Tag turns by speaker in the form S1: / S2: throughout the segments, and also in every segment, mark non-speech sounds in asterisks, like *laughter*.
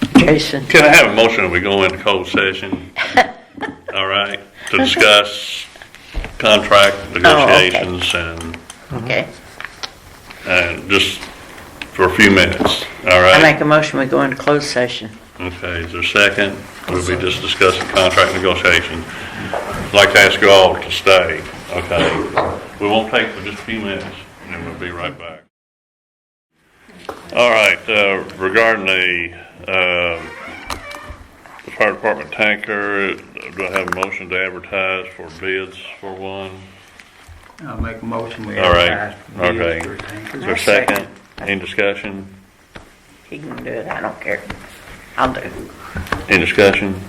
S1: vacation.
S2: Can I have a motion that we go into cold session? All right, to discuss contract negotiations and,
S1: Okay.
S2: and just for a few minutes, all
S1: I
S2: right?
S1: make a motion, we go into closed session.
S2: Okay, is there a second? We'll be just discussing contract negotiation. I'd like to ask you all to stay, okay? We won't take but just a few minutes, and then we'll be right back. All right, uh, regarding the, um, the fire department tanker, do I have a motion to advertise for bids for one?
S3: I'll make a motion. we
S2: All right.
S3: advertise
S2: Okay.
S3: bids for
S2: Is
S3: tankers.
S2: there a second? Any discussion?
S1: He can do it, I don't care. I'll do it.
S2: Any discussion?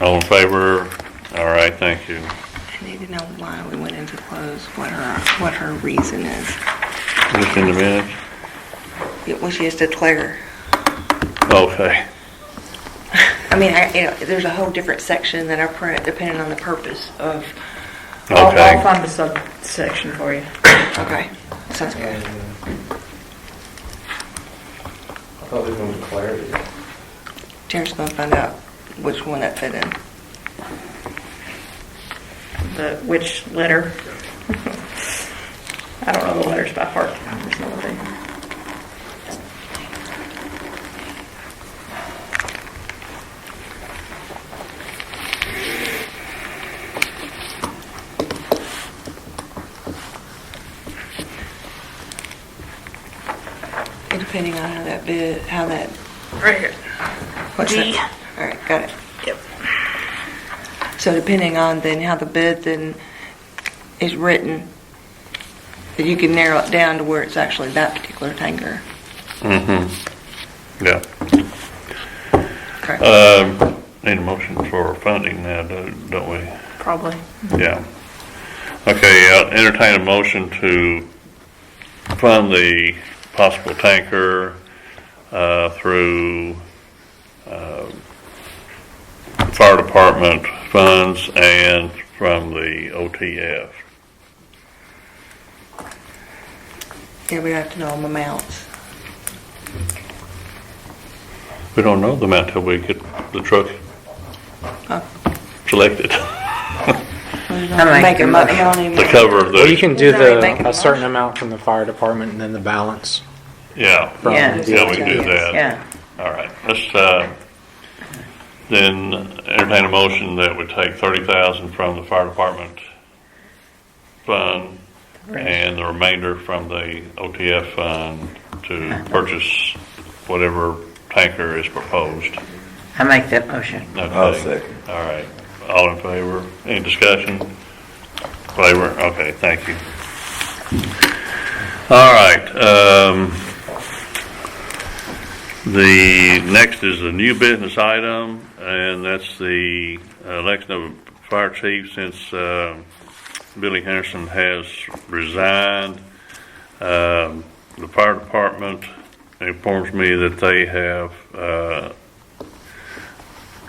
S2: All in favor? All right, thank you.
S4: I need to know why we went into close, what her, what her reason is.
S2: Just in the minutes?
S4: It was just a clear,
S2: Okay.
S4: I mean, I, you know, there's a whole different section that I print depending on the purpose of. I'll-
S2: Okay.
S4: I'll find the subsection for you. *coughs* Okay, sounds good.
S5: I thought we were going to clarity.
S4: Jared's gonna find out which one that fit in.
S6: the, which letter? *laughs* I don't know the letters by heart. There's no way.
S4: Depending on how that bid, how that,
S6: Right here.
S4: what's
S6: G.
S4: that? All right, got it.
S6: Yep.
S4: So depending on then how the bid then is written, that you can narrow it down to where it's actually that particular tanker.
S2: Mm-hmm. Yeah.
S4: Correct.
S2: Um, Need a motion for funding now, do- don't we?
S6: Probably.
S2: Yeah. Okay, I'll entertain a motion to fund the possible tanker uh, through um, fire department funds and from the OTF.
S4: Yeah, we have to know them amounts.
S2: We don't know the amount till we get the truck
S4: Oh.
S2: selected *laughs*
S1: I'm
S4: Make them up, how many?
S2: to cover
S7: Well, you
S2: the,
S7: can do
S4: Does anybody make
S7: the,
S4: a
S7: a certain
S4: motion?
S7: amount from the fire department and then the balance
S2: yeah.
S7: from
S1: Yeah.
S7: the
S2: Yeah, we can do that.
S1: Yeah.
S2: All right, let's, uh, then entertain a motion that would take thirty thousand from the fire department fund and the remainder from the OTF fund to purchase whatever tanker is proposed.
S1: I make that motion.
S2: I'll second. All right, all in favor? Any discussion? Favor, okay, thank you. All right, um, the next is a new business item, and that's the election of a fire chief since, um, Billy Henderson has resigned. Um, the fire department informs me that they have, uh,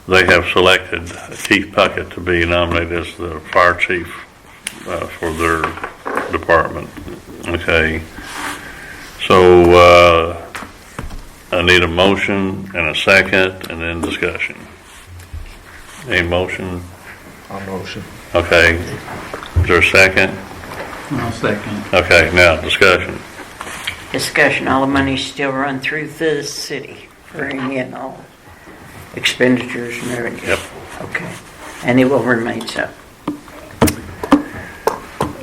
S2: they have selected Keith Puckett to be nominated as the fire chief uh, for their department. Okay. So uh, I need a motion and a second and then discussion. Any motion?
S5: I'll motion.
S2: Okay. Is there a second?
S3: I'll second.
S2: Okay, now discussion.
S1: Discussion, all the money still run through the city for any and all expenditures and everything.
S2: Yep.
S1: Okay. And it will remain so.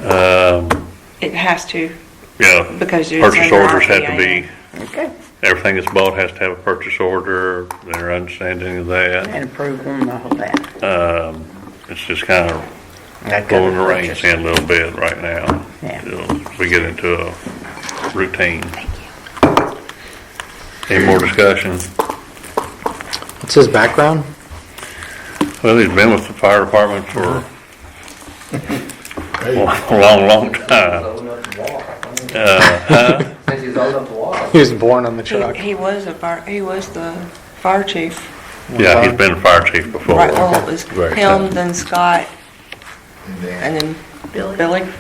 S2: Um,
S4: It has to,
S2: Yeah.
S4: because it's.
S2: Purchase
S4: under
S2: orders have to
S4: RPIA.
S2: be,
S1: Okay.
S2: everything that's bought has to have a purchase order, their understanding of that.
S1: And approval and all that.
S2: Um, it's just kind of
S1: That
S2: pulling
S1: covered
S2: the reins
S1: purchase.
S2: in a little bit right now.
S1: Yeah.
S2: Till We get into a routine. Any more discussion?
S7: What's his background?
S2: Well, he's been with the fire department for a *laughs* long, long time.
S5: Old enough to walk.
S2: Uh,
S1: *laughs*
S2: huh?
S5: Since he's old enough to walk.
S7: He was born on the truck.
S4: He, he was a fire, he was the fire chief.
S2: Yeah, he's been a fire chief before.
S4: Right, well, it was
S2: Right.
S4: him, then Scott, and then Billy.